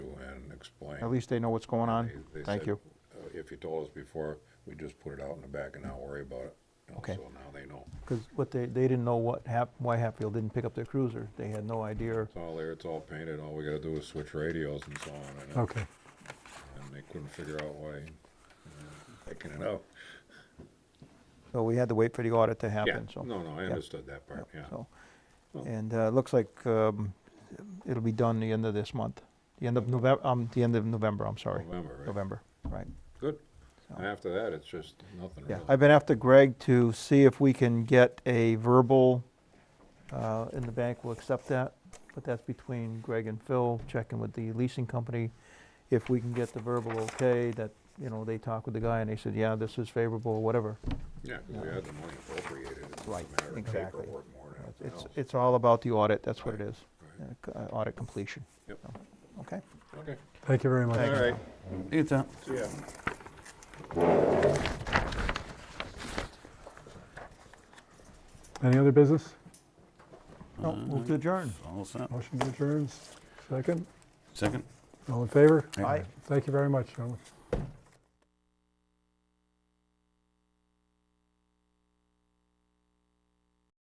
explain. At least they know what's going on. They- they Thank said, you. uh, If you told us before, we just put it out in the back and not worry about it. You know, Okay. So now they know. Because what they, they didn't know what hap, why Hatfield didn't pick up their cruiser. They had no idea. It's all there, it's all painted, all we gotta do is switch radios and so on, and, Okay. and they couldn't figure out why, you know, picking it up. So we had to wait for the audit to happen, so. Yeah, no, no, I yeah, understood that part, yeah, yeah. so. Well- And uh, it looks like um, it'll be done the end of this month, the end of November, um, the end of November, I'm sorry. November, right? November, right. Good. So- And after that, it's just nothing Yeah, really. I've been after Greg to see if we can get a verbal, uh, and the bank will accept that, but that's between Greg and Phil, checking with the leasing company. If we can get the verbal okay, that, you know, they talked with the guy and they said, yeah, this is favorable, or whatever. Yeah, 'cause we had the money appropriated, it's just a Right, matter of exactly. paperwork more than anything It's, else. it's all about the audit, that's what it is, Right. uh, c- uh, audit completion. Yep. So, Okay. Okay, Thank you very much. all right, you, Tom. see ya. Any other business? No, move to adjourn. All set. Motion to adjourn, second. Second? All in favor? Aye. Thank you very much, gentlemen.